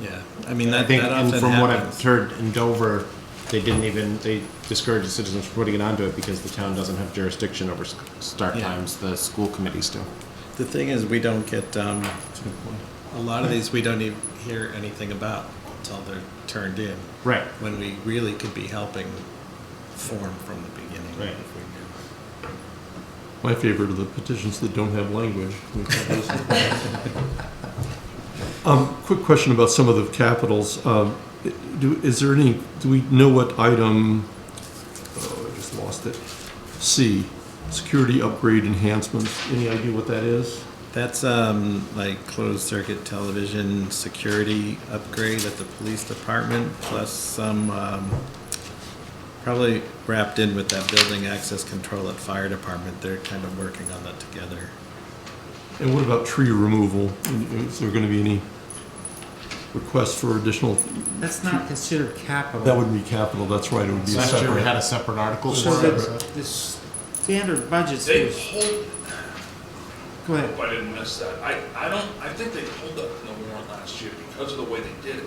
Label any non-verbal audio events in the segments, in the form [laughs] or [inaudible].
Yeah, I mean, I that, think, that and often from what I've happens. heard in Dover, they didn't even, they discouraged the citizens from putting it onto it because the town doesn't have jurisdiction over s- start Yeah. times, the school committees do. The thing is, we don't get, um, a lot of these, we don't even hear anything about until they're turned in. Right. When we really could be helping form from the beginning. Right. if we My favorite are the petitions that don't have [laughs] language. Um, quick question about some of the capitals. Um, i- do, is there any, do we know what item, oh, I just lost it. C, security upgrade enhancements. Any idea what that is? knew. That's, um, like closed circuit television security upgrade at the police department, plus some, um, probably wrapped in with that building access control at fire department. They're kind of working on that together. And what about tree removal? Is there gonna be any requests for additional, That's not considered capital. that wouldn't be capital, that's right, it would be a Last year, we had separate. a separate article So for it. the, the standard budget They is, hold, go I hope ahead. I didn't miss that. I, I don't, I think they pulled up in the warrant last year because of the way they did it.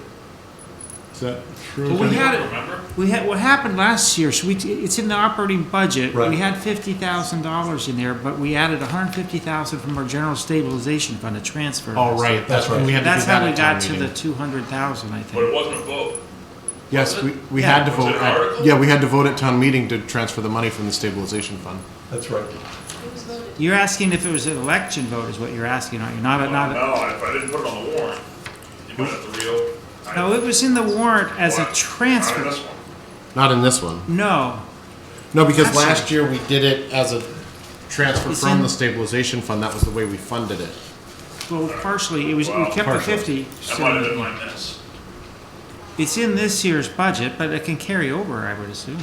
Is that Well, we true? had it, Remember? we had, what happened last year, so we, t- it's in the operating budget. Right. We had fifty thousand dollars in there, but we added a hundred and fifty thousand from our general stabilization fund to transfer. Oh, right, that's when we had to do That's that how we at town got to the meeting. two hundred thousand, I But it think. wasn't a vote. Yes, we, we Yeah. had to Was it vote, an at- article? yeah, we had to vote at town meeting to transfer the money from the stabilization fund. That's right. You're asking if it was an election vote is what you're asking, aren't you? Not a, Oh, No, not a. if I didn't put it on the warrant, you might have to reopen. I- No, it was in the warrant as a Not in transfer. this one. Not in this one. No, No, because Actually- last year we did it as a transfer It's from in- the stabilization fund, that was the way we funded it. well, partially, it was, we Wow, kept the partially. fifty. That so- might have been my miss. It's in this year's budget, but it can carry over, I would assume.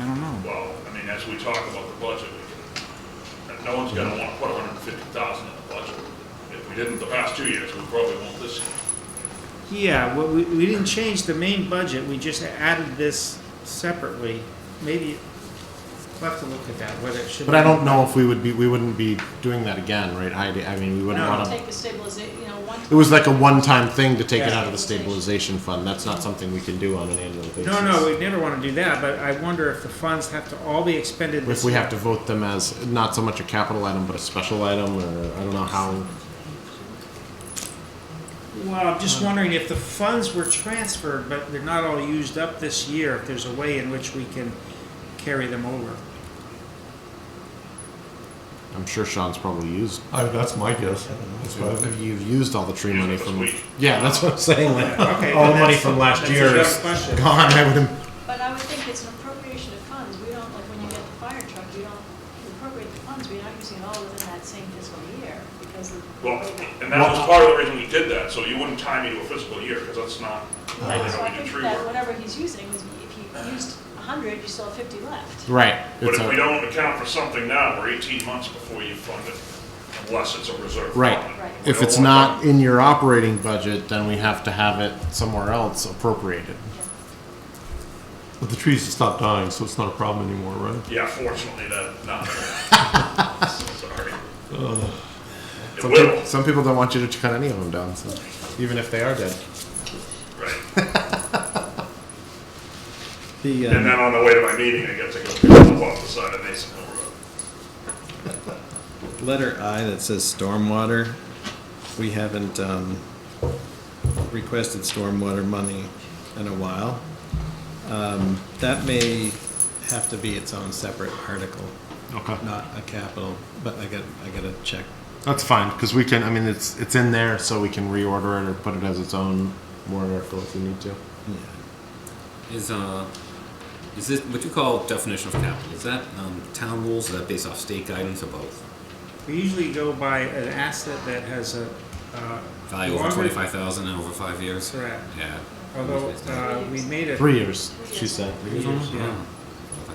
I don't know. Well, I mean, as we talk about the budget, we can, and no one's gonna wanna put hundred and fifty thousand in the budget. If we didn't the past two years, we probably won't this year. Yeah, well, we, we didn't change the main budget, we just added this separately. Maybe, we'll have to look at that, whether it should. But I don't know if we would be, we wouldn't be doing that again, right, Heidi? I mean, we wouldn't No. want to. take the stabilization, you know, one. It was like a one-time thing to take it Yeah. out of the stabilization fund. That's not something we can do on an annual basis. No, no, we'd never wanna do that, but I wonder if the funds have to all be expended this If we year. have to vote them as not so much a capital item, but a special item, or I don't know how. Well, I'm just wondering if the funds were transferred, but they're not all used up this year, if there's a way in which we can carry them over. I'm sure Sean's probably used. I, that's my guess. That's what I- You've used all the tree money this from. week. Yeah, that's what I'm saying. Like, Okay, all well, the money that's- from last that's a year good is question. gone. I would. But I would think it's an appropriation of funds, we don't, like, when you get the fire truck, you don't appropriate the funds, we're not using it all within that same fiscal year, because of. Well, and that was part of the reason we did that, so you wouldn't tie me to a fiscal year, because that's not, Uh, Right, that's so how I we do think tree that work. whatever he's using, is if you used a hundred, you still have fifty left. Right. But it's if a- we don't account for something now, we're eighteen months before you fund it, unless it's a reserve. Right. fund. Right. We If don't it's want not in your operating budget, then we have to have it somewhere else appropriated. But the trees have stopped dying, so it's not a problem anymore, right? that- Yeah, fortunately, that, not. [laughs] Sorry. It Some people, will, some people don't want you to cut any of them down, so, even if they are dead. right. The, um, And then on the way to my meeting, I get to go pick them up off the side of Mason Hill Road. Letter I that says stormwater, we haven't um, requested stormwater money in a while. Um, That may have to be its own separate article, Okay. not a capital, but I got, I gotta check. That's fine, because we can, I mean, it's, it's in there, so we can reorder it or put it as its own warrant article if we need to. Is uh, is this what you call definition of capital? Is that um, town rules? Is that based off state guidance or both? We usually go by an asset that has a. uh, Value over longer- twenty-five thousand and over five years. Correct. Yeah. Although, Usually it's not. uh, we made it. Three years, she said. Yeah. Oh, Okay.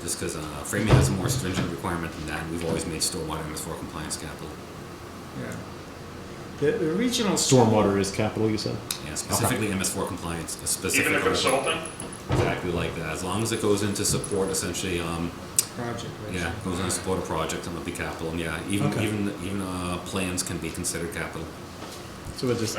Just because uh, Framingham has a more stringent requirement than that, we've always made stormwater MS4 compliance capital. yeah. The original. Stormwater is capital, you said? Yeah, specifically MS4 compliance, a specific. Even a consulting, Exactly like that. As long as it goes into support, essentially, um, Project. right? yeah, goes into support a project and it'll be capital. And yeah, even even even uh, plans can be considered capital. So we'll just